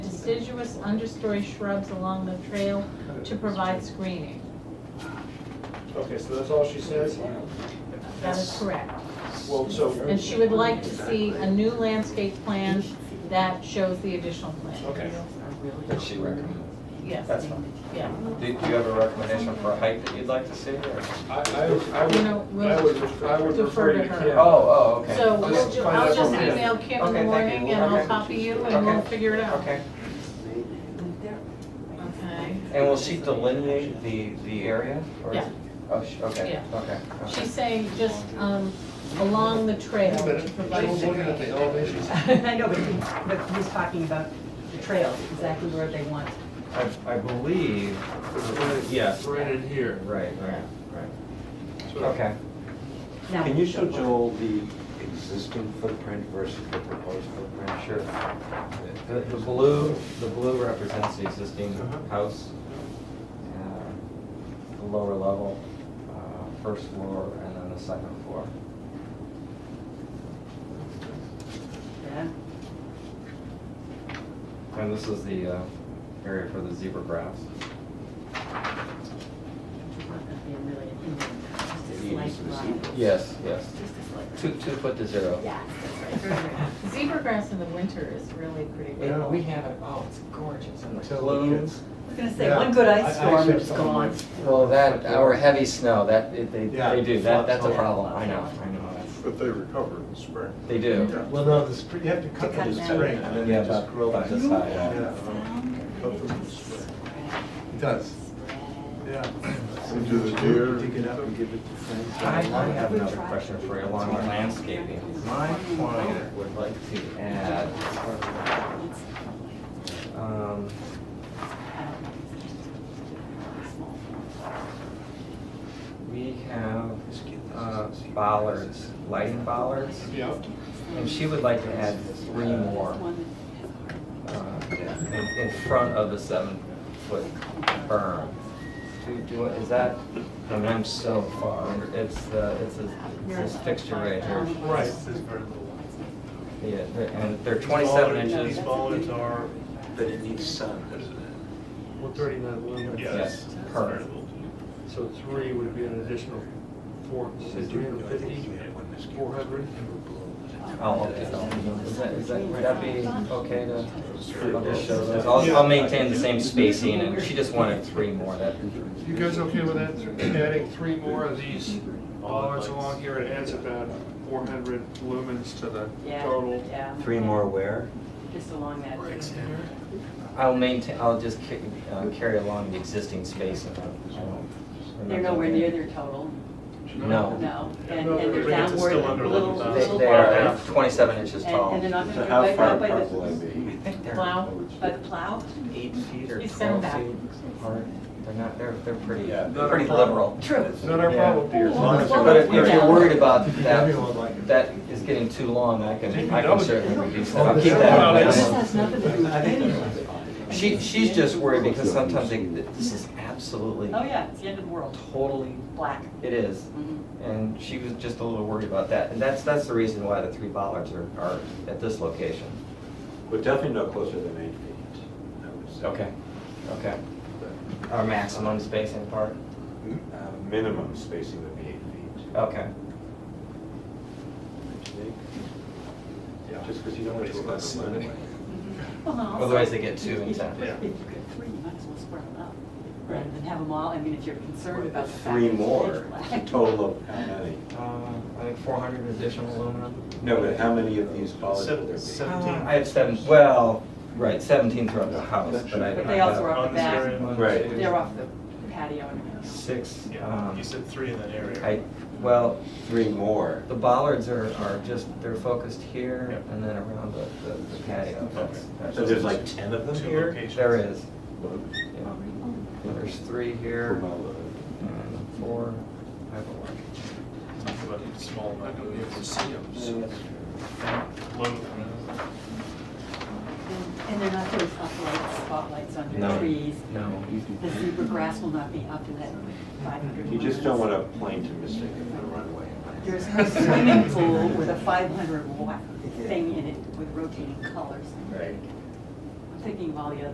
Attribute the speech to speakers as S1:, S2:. S1: deciduous understory shrubs along the trail to provide screening.
S2: Okay, so that's all she says?
S1: That is correct.
S2: Well, so,
S1: And she would like to see a new landscape plan that shows the additional plan.
S2: okay.
S3: that she recommends.
S1: Yes.
S3: That's fine.
S1: Yeah.
S3: Do do you have a recommendation for a height that you'd like to see, or?
S2: I, I would, I
S1: You know,
S2: would, I would refer- I would
S1: defer
S2: refer
S1: to
S2: to
S1: her.
S3: Oh,
S2: Kim.
S3: oh, okay.
S1: So we'll
S3: Just
S1: ju-
S3: find
S1: I'll
S3: out
S1: just
S3: from Kim.
S1: email Kim in the
S3: Okay, thank you.
S1: morning and I'll
S3: Okay.
S1: copy you and we'll
S3: Okay.
S1: figure it out.
S3: Okay,
S1: Okay.
S3: and will she delineate the, the area? or-
S1: Yeah.
S3: Oh, she- okay,
S1: Yeah.
S3: okay. okay.
S1: She's saying just um, along the trail
S2: But
S1: to
S2: she
S1: provide
S2: was looking at the
S1: screening.
S2: elevations.
S4: I know, but he, but he's talking about the trails, exactly where they want.
S5: I, I believe, Yes.
S2: Right in here.
S5: right, right, right.
S2: So-
S3: Okay,
S4: Now-
S6: Can you show Joel the existing footprint versus the proposed footprint?
S3: sure. The, the blue, the blue represents the existing
S2: Uh-huh.
S3: house. uh, The lower level, uh, first floor, and then the second floor.
S4: Yeah.
S3: And this is the uh, area for the zebra grass.
S4: It's not gonna be a million in there, just a
S6: Maybe it's
S4: slight line.
S3: Yes, yes.
S4: Just a slight line.
S3: Two, two foot to zero.
S4: Yeah, that's right. Very good.
S1: Zebra grass in the winter is really pretty
S3: Yeah,
S1: beautiful.
S3: we have it, oh, it's gorgeous, and the
S2: Until it
S3: blooms.
S2: hits.
S4: I was gonna say,
S2: Yeah.
S4: one good
S2: I- I
S4: ice storm,
S2: actually
S4: it's
S2: have someone
S4: gone.
S3: Well, that, our heavy snow, that, it- they,
S2: Yeah,
S3: they do, that, that's a
S2: floods all
S3: problem, I know, I know. that's-
S7: But they recover in the spring.
S3: They do.
S2: Well, no, the spring, you have to cut them
S4: To cut
S2: in
S4: them.
S2: spring and then
S3: Yeah,
S2: they just
S3: about-
S2: grow
S3: about
S2: back.
S3: this high, yeah.
S7: Cut them in the spring.
S2: It does, yeah.
S7: We do the deer.
S2: Dig it up and give it to friends.
S6: uh,
S3: I, I have another question for you along with landscaping. My client would like to add, um, we have, uh, bollards, lighting bollards,
S2: Yeah.
S3: and she would like to add three more. uh, in, in front of the seven-foot berm. Do, do, is that, I mean, I'm so far, under- it's the, it's a- it's this fixture right here.
S2: Right, there's very little.
S3: Yeah, they're- and they're twenty-seven
S2: These
S3: inches.
S2: bollards are,
S6: But it needs sun, doesn't it?
S2: one thirty-nine lumen.
S3: Yes, per.
S2: So three would be an additional four, three hundred fifty, four hundred.
S3: I'll, Oh, is that, is that, would that be okay to, I'll just show those, I'll, I'll maintain the same spacing, and she just wanted three more, that,
S2: You guys okay with that, adding three more of these bollards along here, it adds about four hundred lumens to the
S4: Yeah,
S2: total.
S4: yeah.
S6: Three more where?
S4: Just along that.
S3: I'll maintain, I'll just ca- uh, carry along the existing spacing. I won't-
S4: They're nowhere near their total,
S3: No.
S4: no, and,
S2: No,
S4: and
S2: but
S4: they're
S2: it's still
S4: downward,
S2: under
S4: little,
S2: 11,000.
S3: They,
S4: little
S3: they are
S4: bar.
S3: twenty-seven inches
S4: And,
S3: tall.
S4: and they're not
S6: So
S4: gonna
S6: how
S4: go
S6: far
S4: by, by
S6: apart will
S4: the,
S6: they be?
S3: I think they're
S1: Plow.
S4: by the oh, plow?
S3: eight feet or
S1: You send
S3: twelve
S1: them
S3: feet apart. They're not, they're, they're pretty,
S6: Yeah.
S3: they're pretty liberal.
S4: True.
S2: Not our problem, dear.
S6: As long as they're-
S3: But if if
S4: Yeah.
S3: you're worried about
S2: Everyone like
S3: that,
S2: it.
S3: that is getting too long, I can, I can certainly reduce that. I'll keep
S2: Oh,
S3: that.
S2: this-
S3: in mind.
S2: has nothing
S4: to do with anything.
S3: She, she's just worried because sometimes they, this is absolutely,
S4: Oh, yeah, it's the end of the world,
S3: totally,
S4: black.
S3: it is.
S4: Mhm.
S3: And she was just a little worried about that. And that's, that's the reason why the three bollards are, are at this location.
S6: Well, definitely no closer than eight feet. I would say.
S3: Okay. Our maximum spacing part?
S6: Uh, Minimum spacing would be eight feet.
S3: Okay.
S6: don't you think? Just because you don't want to go by the line.
S4: Well, no, also-
S3: Otherwise they get two
S4: If-
S3: instead.
S4: Mm-hmm. If you get three, you might as well spread them out, rather than have them all, I mean, if you're concerned about the fact.
S6: Three
S4: that it's
S6: more,
S4: black.
S6: total of how many?
S3: Uh, I think four hundred additional aluminum.
S6: No, but how many of these bollards will there be?
S2: Seven. Seventeen.
S3: I have seven, well, right, seventeen throughout the house, but I.
S4: But they also are off the back,
S3: One,
S6: Right.
S3: two,
S4: they're off the patio and.
S3: Six, um,
S7: three in that
S3: I, well,
S6: Three more.
S3: the bollards are, are just, they're focused here
S7: Yeah.
S3: and then around the, the- the patio. That's- that's-
S6: So there's like 10 of them
S7: Two
S6: here?
S7: locations.
S3: There is, yeah. There's three here and four, I have a large.
S7: Talk about it, small, not gonna be able to see them. so low.
S4: And they're not putting spotlights, spotlights on the
S3: No.
S4: trees.
S3: No.
S4: The zebra grass will not be up in that five hundred.
S6: You just don't want a plane to mistake it for a runway.
S4: There's no swimming pool with a five hundred watt thing in it with rotating colors.
S6: Right.
S4: thinking of all the other